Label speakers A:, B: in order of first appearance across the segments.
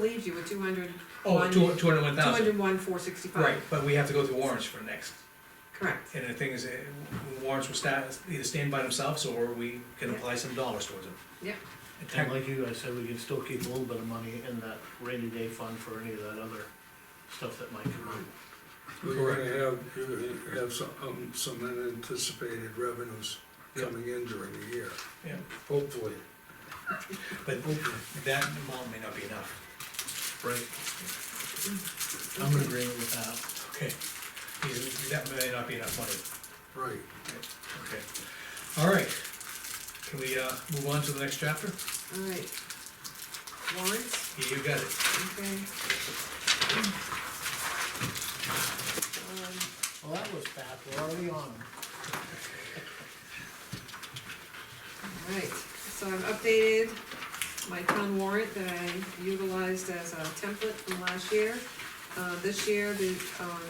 A: leaves you with two hundred.
B: Oh, two, two hundred one
A: Two
B: thousand,
A: hundred one, four sixty-five.
B: right, but we have to go through warrants for next,
A: Correct,
B: and the thing is, eh, warrants will sta either stand by themselves, or we can apply some dollars towards them.
A: yeah,
B: And tech-
C: And like you guys said, we can still keep a little bit of money in that rainy day fund for any of that other stuff that might come up.
D: We're gonna
B: Correct.
D: have, you're gonna have some, um, some unanticipated revenues
B: Yeah.
D: coming in during the year,
B: yeah,
D: hopefully.
B: But that amount may not be enough,
C: Right. I'm in agreement with that.
B: okay, Because that may not be enough money,
D: Right,
B: okay. All right, can we, uh, move on to the next chapter?
A: all right. Warrants,
B: You got it,
A: okay. Um,
C: Well, that was fast, we're already on.
A: all right, so I've updated my town warrant that I utilized as a template from last year. Uh, this year, the, um,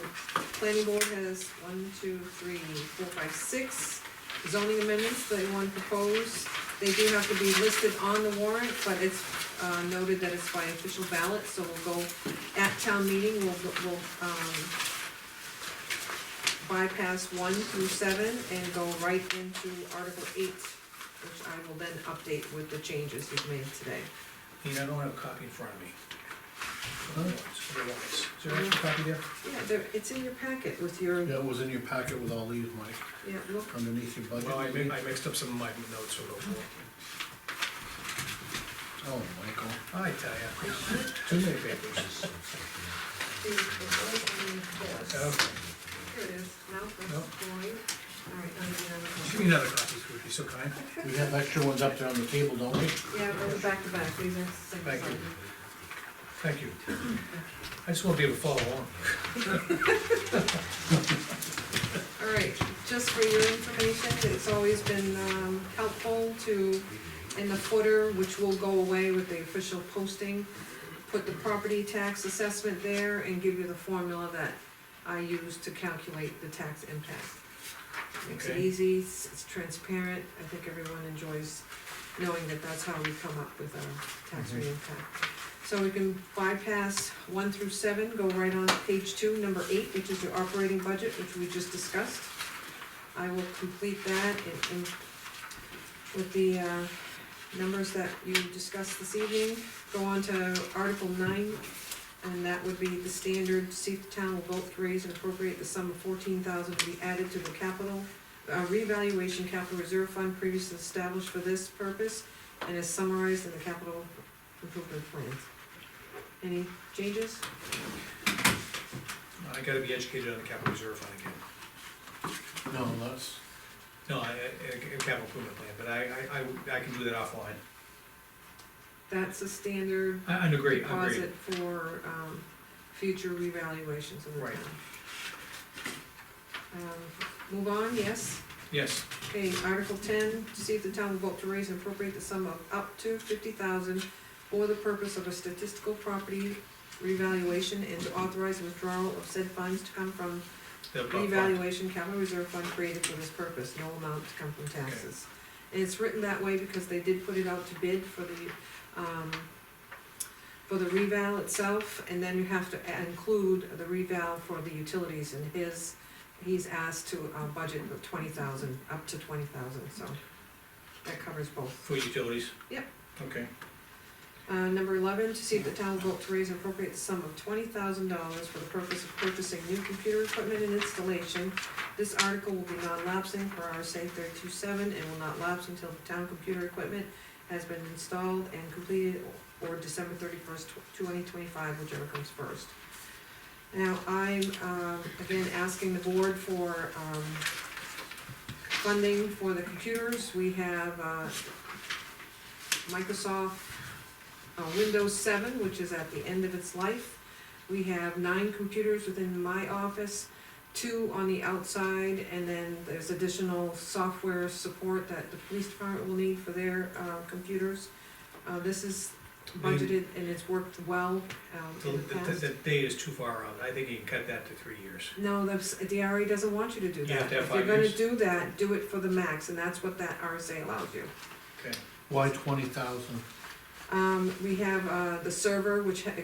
A: planning board has one, two, three, four, five, six zoning amendments they want to propose. They do have to be listed on the warrant, but it's, uh, noted that it's by official ballot, so we'll go at town meeting, we'll, we'll, um, bypass one through seven and go right into Article eight, which I will then update with the changes you've made today.
B: you know, I don't have a copy in front of me.
C: Huh?
B: Otherwise, Is there an extra copy there?
A: Yeah, there, it's in your packet with your,
C: That was in your packet with all these, Mike,
A: yeah, look,
C: underneath your budget.
B: Well, I mi- I mixed up some of my notes a little more,
C: Oh, Michael.
B: I tell ya, too many papers.
A: it's right in this.
B: Okay.
A: Here it is, now that's
B: Nope.
A: void. All right, I'll do another one.
B: Give me another copy, if you'd be so kind.
C: We have extra ones up there on the table, don't we?
A: Yeah, those are back to back, these are same
B: Thank you.
A: side.
B: Thank you. I just want to be able to follow along.
A: All right, just for your information, it's always been um, helpful to, in the footer, which will go away with the official posting, put the property tax assessment there and give you the formula that I use to calculate the tax impact. Makes it
B: Okay.
A: easy, it's it's transparent, I think everyone enjoys knowing that that's how we come up with our tax rate impact. So we can bypass one through seven, go right on to page two, number eight, which is your operating budget, which we just discussed. I will complete that and, and with the, uh, numbers that you discussed this evening. Go on to Article nine, and that would be the standard, see if the town will vote to raise and appropriate the sum of fourteen thousand to be added to the capital, uh, revaluation capital reserve fund previously established for this purpose, and is summarized in the capital improvement plan. Any changes?
B: I gotta be educated on the capital reserve fund again.
C: No, that's,
B: No, I, I, a capital improvement plan, but I, I, I, I can do that offline.
A: That's a standard
B: I, I agree, I agree.
A: deposit for, um, future revaluations of the
B: Right.
A: town. Um, move on, yes?
B: Yes,
A: Okay, Article ten, to see if the town will vote to raise and appropriate the sum of up to fifty thousand for the purpose of a statistical property revaluation and to authorize withdrawal of said funds to come from
B: the bu- fund.
A: revaluation capital reserve fund created for this purpose, no amount to come from taxes. And it's written that way because they did put it out to bid for the, um, for the reval itself, and then you have to a- include the reval for the utilities and his, he's asked to, uh, budget with twenty thousand, up to twenty thousand, so that covers both.
B: for utilities.
A: Yep.
B: Okay,
A: Uh, number eleven, to see if the town will vote to raise and appropriate the sum of twenty thousand dollars for the purpose of purchasing new computer equipment and installation. This article will be non-lapsing for RSA thirty-two-seven and will not lapse until the town computer equipment has been installed and completed or December thirty-first, twenty twenty-five, whichever comes first. Now, I'm, um, again, asking the board for, um, funding for the computers. We have, uh, Microsoft uh, Windows seven, which is at the end of its life. We have nine computers within my office, two on the outside, and then there's additional software support that the police department will need for their, uh, computers. Uh, this is budgeted and it's worked well, um,
B: the,
A: in the
B: the,
A: past.
B: the date is too far out, I think you can cut that to three years.
A: No, that's, DRA doesn't want you to do
B: You
A: that.
B: have to have five years.
A: If you're gonna do that, do it for the max, and that's what that RSA allows you.
B: Okay.
C: why twenty thousand?
A: Um, we have, uh, the server, which ha-